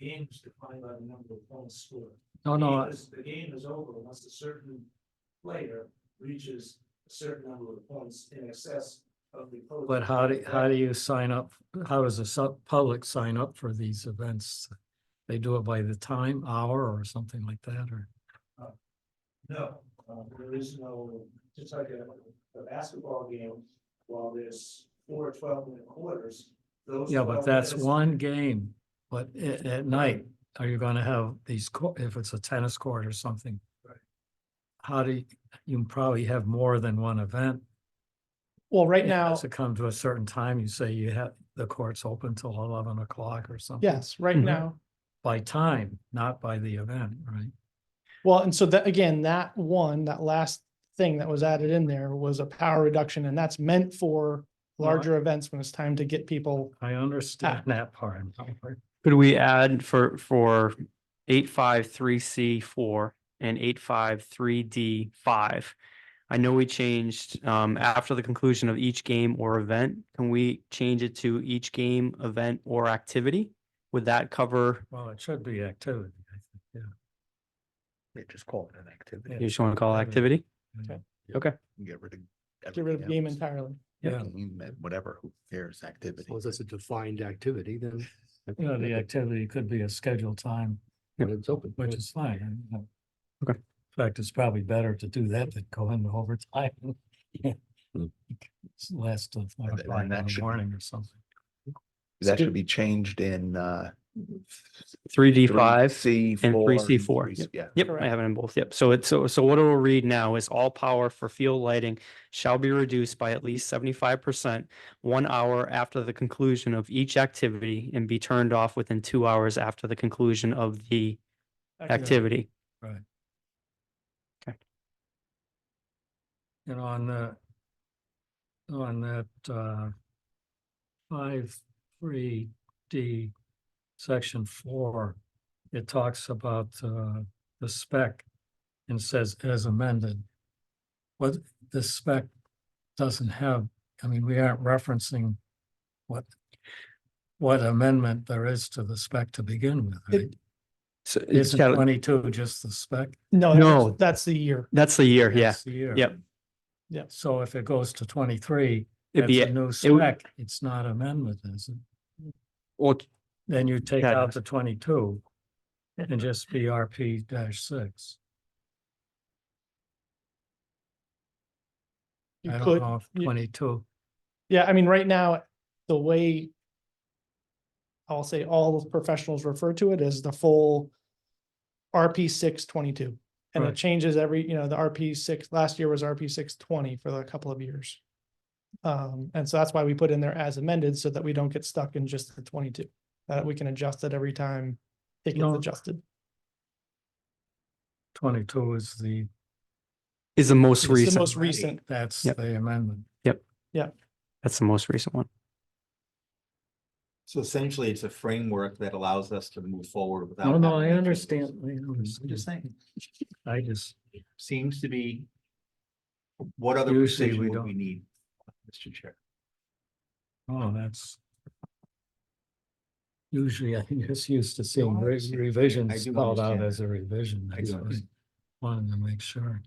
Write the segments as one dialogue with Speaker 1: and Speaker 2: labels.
Speaker 1: game is defined by the number of points scored.
Speaker 2: No, Oh, no,
Speaker 1: Game is- The game is over once a certain player reaches a certain number of points in excess of the. opposing
Speaker 2: but how do,
Speaker 1: player's
Speaker 2: how do you sign up? How does the sub- public sign up for these events? They do it by the time, hour or something like that, or?
Speaker 1: No, uh, there is no, just like a, a basketball game, while there's four 12 minute quarters, those.
Speaker 2: Yeah, but
Speaker 1: 12
Speaker 2: that's
Speaker 1: minutes-
Speaker 2: one game, but at, at night, are you gonna have these, cour- if it's a tennis court or something?
Speaker 1: Right.
Speaker 2: How do you, you probably have more than one event.
Speaker 3: Well, right
Speaker 2: It has
Speaker 3: now,
Speaker 2: To come to a certain time, you say you have, the court's open till eleven o'clock or something.
Speaker 3: yes, right
Speaker 2: Mhm.
Speaker 3: now.
Speaker 2: By time, not by the event, right?
Speaker 3: Well, and so that, again, that one, that last thing that was added in there was a power reduction and that's meant for
Speaker 2: No, I-
Speaker 3: larger events when it's time to get people.
Speaker 2: I understand
Speaker 3: Ah.
Speaker 2: that part.
Speaker 4: Could we add for, for eight, five, three, C four and eight, five, three, D five? I know we changed, um, after the conclusion of each game or event, can we change it to each game, event or activity? Would that cover,
Speaker 2: Well, it should be activity, I think, yeah.
Speaker 5: Yeah, just call it an activity.
Speaker 2: Yeah.
Speaker 4: you just want to call it activity?
Speaker 5: Get rid of.
Speaker 3: Get rid of
Speaker 5: everything
Speaker 3: game
Speaker 5: else.
Speaker 3: entirely.
Speaker 2: Yeah.
Speaker 5: Game, Whatever, who cares, activity.
Speaker 6: Well, that's a defined activity then. I
Speaker 2: You know,
Speaker 6: think
Speaker 2: the
Speaker 6: that-
Speaker 2: activity could be a scheduled time
Speaker 6: When it's open.
Speaker 2: Which is fine. and, you know,
Speaker 4: Okay.
Speaker 2: In fact, it's probably better to do that than go into overtime.
Speaker 6: Hmm.
Speaker 2: It's Less than
Speaker 5: And
Speaker 2: five
Speaker 5: th-
Speaker 2: o'clock in
Speaker 5: and that
Speaker 2: the
Speaker 5: should be-
Speaker 2: morning or something.
Speaker 5: That
Speaker 3: do-
Speaker 5: should be changed in, uh.
Speaker 4: Three D five?
Speaker 5: C
Speaker 4: and
Speaker 5: four.
Speaker 4: three C4,
Speaker 5: three C- Yeah.
Speaker 4: Yep, I
Speaker 3: Correct.
Speaker 4: have it in both. Yep. So it's, so, so what it'll read now is all power for field lighting shall be reduced by at least seventy-five percent one hour after the conclusion of each activity and be turned off within two hours after the conclusion of the activity.
Speaker 2: And on the, on that, uh, five, three, D, section four, it talks about, uh, the spec and says as amended. What, the spec doesn't have, I mean, we aren't referencing what, what amendment there is to the spec to begin with, right?
Speaker 4: So it's
Speaker 2: Isn't
Speaker 4: got,
Speaker 2: twenty-two just the spec?
Speaker 3: No,
Speaker 4: No.
Speaker 3: that's- that's the year.
Speaker 4: that's the year. Yeah.
Speaker 2: That's the year.
Speaker 4: Yep.
Speaker 3: Yep.
Speaker 2: So if it goes to twenty-three,
Speaker 4: It'd
Speaker 2: that's
Speaker 4: be,
Speaker 2: a new
Speaker 4: would-
Speaker 2: spec, it's not amendment, is it?
Speaker 4: well,
Speaker 2: Then you take
Speaker 4: Yeah.
Speaker 2: out the twenty-two and just be RP dash six.
Speaker 3: You
Speaker 2: I don't
Speaker 3: could,
Speaker 2: know if
Speaker 3: you-
Speaker 2: twenty-two,
Speaker 3: yeah, I mean, right now, the way I'll say all professionals refer to it as the full RP six twenty-two. And it
Speaker 2: Right.
Speaker 3: changes every, you know, the RP six, last year was RP six twenty for the couple of years. Um, and so that's why we put in there as amended so that we don't get stuck in just the twenty-two, that we can adjust it every time it gets
Speaker 2: No.
Speaker 3: adjusted.
Speaker 2: twenty-two is the,
Speaker 4: is the most
Speaker 3: It's the
Speaker 4: recent.
Speaker 3: Most recent.
Speaker 2: that's
Speaker 4: Yep.
Speaker 2: the amendment.
Speaker 4: That's the most recent one.
Speaker 7: So essentially, it's a framework that allows us to move forward without.
Speaker 2: No, no,
Speaker 7: having to
Speaker 2: I
Speaker 7: change those.
Speaker 2: understand, I
Speaker 7: I'm just
Speaker 2: understand.
Speaker 7: saying,
Speaker 2: I just,
Speaker 7: seems to be. What other
Speaker 2: Usually we
Speaker 7: precision would
Speaker 2: don't.
Speaker 7: we need, Mr. Chair?
Speaker 2: oh, that's usually I just used to seeing re- revisions
Speaker 7: do
Speaker 2: spelled out
Speaker 7: understand
Speaker 2: as a revision.
Speaker 7: I
Speaker 2: that's
Speaker 7: do
Speaker 2: why.
Speaker 7: understand.
Speaker 2: Wanted to make sure.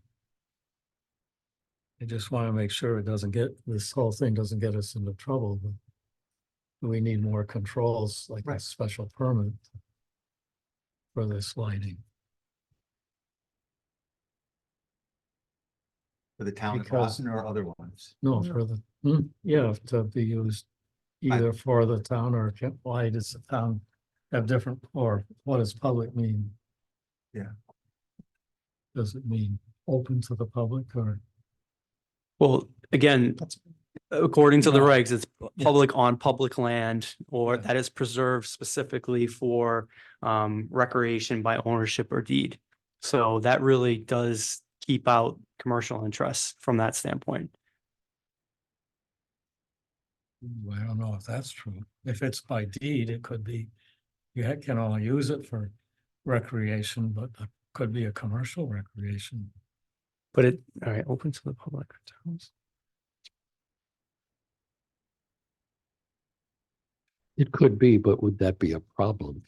Speaker 2: I just want to make sure it doesn't get, this whole thing doesn't get us into trouble. but We need more controls like a
Speaker 7: Right.
Speaker 2: special permit. For this lighting,
Speaker 7: For the town of
Speaker 2: Because-
Speaker 7: Boston or other ones?
Speaker 2: no,
Speaker 3: Yeah.
Speaker 2: for the, hmm, yeah, to be used. Either for the town or ca- why does the town have different, or what does public mean?
Speaker 7: Yeah.
Speaker 2: Does it mean open to the public or?
Speaker 4: Well, again,
Speaker 3: That's-
Speaker 4: According to the
Speaker 2: No.
Speaker 4: regs, it's
Speaker 2: Yeah.
Speaker 4: public on public land or
Speaker 2: Yeah.
Speaker 4: that is preserved specifically for um recreation by ownership or deed. So that really does keep out commercial interests from that standpoint.
Speaker 2: Ooh, I don't know if that's true. If it's by deed, it could be, you ha- can only use it for recreation, but it could be a commercial recreation.
Speaker 4: But it, all right, open to the public.
Speaker 6: It could be, but would that be a problem?